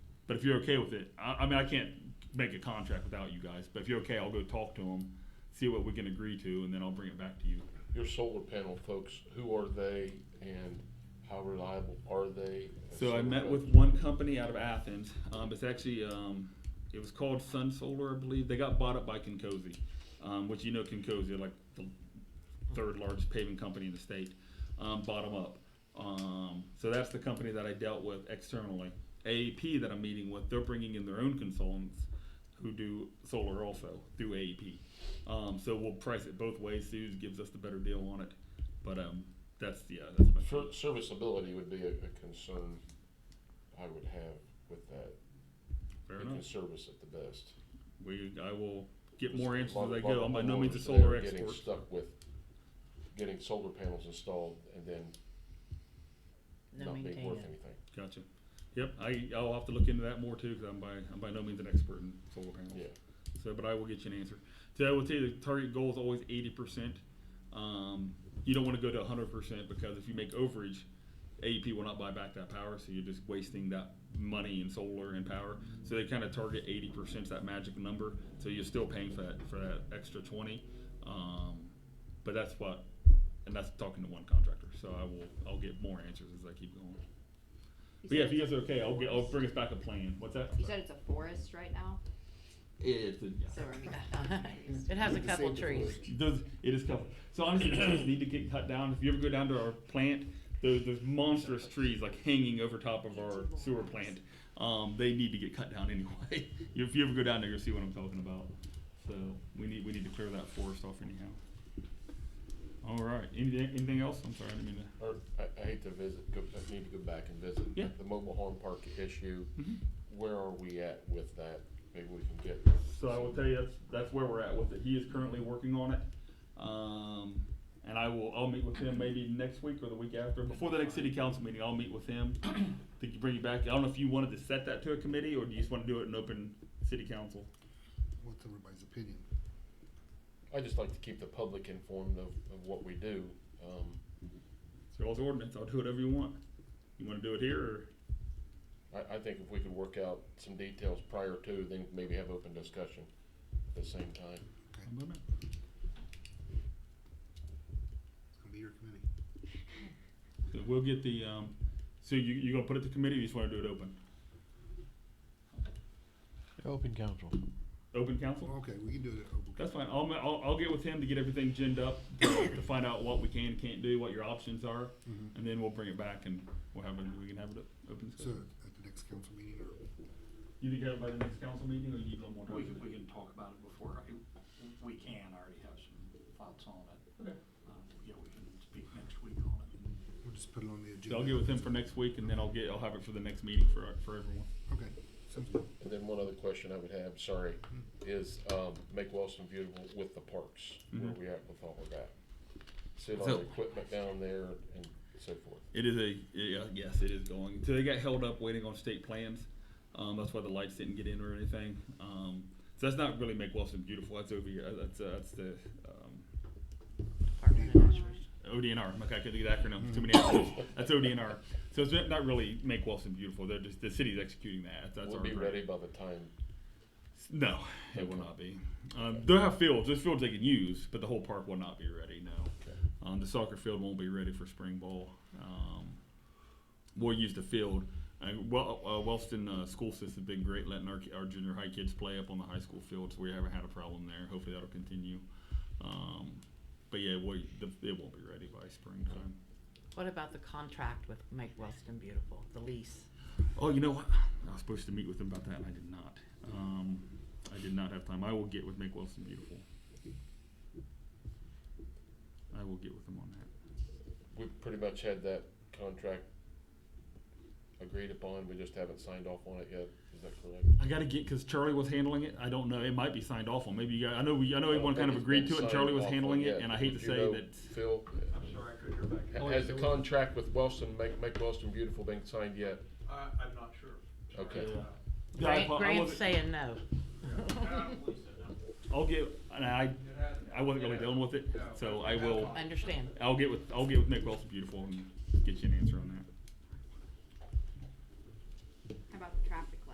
But if you're okay with it, I, I mean, I can't make a contract without you guys. But if you're okay, I'll go talk to them, see what we can agree to, and then I'll bring it back to you. Your solar panel folks, who are they and how reliable are they? So I met with one company out of Athens. Um, it's actually um, it was called Sun Solar, I believe. They got bought up by Kinkozy, um, which you know Kinkozy, like the third largest paving company in the state, um, bottom up. Um, so that's the company that I dealt with externally. AEP that I'm meeting with, they're bringing in their own consultants who do solar also through AEP. Um, so we'll price it both ways. Suze gives us the better deal on it, but um, that's yeah, that's my. Ser- Serviceability would be a, a concern I would have with that. Fair They enough. can service it the best. We, I will get There's more a answers lot- as I lot go. of I'm by no means a homeowners that solar are Getting expert. stuck with getting solar panels installed and then No not being maintain worth it. anything. Gotcha. Yep, I, I'll have to look into that more too, cause I'm by, I'm by no means an expert in solar panels. Yeah. So, but I will get you an answer. So I will tell you the target goal is always eighty percent. Um, you don't wanna go to hundred percent because if you make overage, AEP will not buy back that power, so you're just wasting that money in solar and power. So they kinda target eighty percent, that magic number, so you're still paying for that, for that extra twenty. Um, but that's what, and that's talking to one contractor, so I will, I'll get more answers as I keep going. But yeah, if you guys are okay, I'll get, I'll bring us back a plan. What's that? You said it's a forest right now, It's a- yeah. so we're gonna confused. It has a couple trees. Those, it is covered. So honestly, the trees need to get cut down. If you ever go down to our plant, those, those monstrous trees like hanging over top of our sewer plant, um, they need to get cut down anyway. if you ever go down there, you'll see what I'm talking about. So we need we need to clear that forest off anyhow. All right. Anything, anything else? I'm sorry, I didn't mean to. Or, I, I hate to visit, go, I need to go back and visit. Yeah. The mobile home park issue, Mhm. where are we at with that? Maybe we can get. So I will tell you, that's, that's where we're at with it. He is currently working on it. Um, and I will, I'll meet with him maybe next week or the week after. Before the next city council meeting, I'll meet with him to bring you back. I don't know if you wanted to set that to a committee or do you just wanna do it in open city council? What's everybody's opinion? I just like to keep the public informed of, of what we do. Um, So all's ordinance, I'll do whatever you want. You wanna do it here or? I, I think if we could work out some details prior to, then maybe have open discussion at the same time. It's gonna be your committee. So We'll get the, um, so you, you gonna put it to committee or you just wanna do it open? Open council. Open council? Okay, we can do it at open. That's fine. I'll, I'll, I'll get with him to get everything ginned up, to find out what we can and can't do, what your options are, Mhm. and then we'll bring it back and we'll have it, we can have it open So discussion. at the next council meeting or? You think have it by the next council meeting, or you need a little more time? We can, we can talk about it before, I- we can already have some thoughts on it. Okay. Um, Yeah, we can speak next week on it. We'll just put it on the So agenda. I'll get with him for next week, and then I'll get, I'll have it for the next meeting for, for everyone. Okay, sounds good. And then one other question I would have, sorry, is, um, make Wellston beautiful with the parks, where Mhm. we at with all of that? Sit on So- the equipment down there and so forth. It is a, yeah, yes, it is going. So they got held up waiting on state plans. Um, that's why the lights didn't get in or anything. Um, so that's not really make Wilson beautiful. That's over here. That's, uh, that's the, um, Apartment administration. ODNR. I'm like, I could do the acronym. Too many acronyms. That's ODNR. So it's not really make Wilson beautiful. They're just the city's executing that. That's We'll our be grant. ready by the time, No, it will not be. Um, they'll have fields. There's fields they can use, but the whole park will not be ready. No, okay, um, the soccer field won't be ready for spring ball. Um, we'll use the field. Uh, well, uh, Wellston uh, school system's been great letting our, our junior high kids play up on the high school field, so we haven't had a problem there. Hopefully that'll continue. Um, but yeah, we, the, it won't be ready by springtime. What about the contract with Make Wellston Beautiful, the lease? Oh, you know what? I was supposed to meet with them about that, and I did not. Um, I did not have time. I will get with Make Wilson Beautiful. I will get with them on that. we pretty much had that contract agreed upon, we just haven't signed off on it yet, is that correct? I got to get because Charlie was handling it. I don't know. It might be signed off on. Maybe you guys. I know. We, I know I don't everyone kind think of it's agreed been to it. and signed Charlie was off on handling it, yet. and I hate Would to you say know, that. Phil, I'm sorry, I couldn't hear back. ha- has the contract with Wellston, make, make Wellston beautiful been signed yet? I, I'm not sure. Sorry. Okay. Yeah. Uh, Yeah, I Grant, apo- I Grant's wasn't- saying no. I'll get. And I. I wasn't really dealing with it, so I will. Understand. I'll get with. I'll get with Make Wilson Beautiful and get you an answer on that.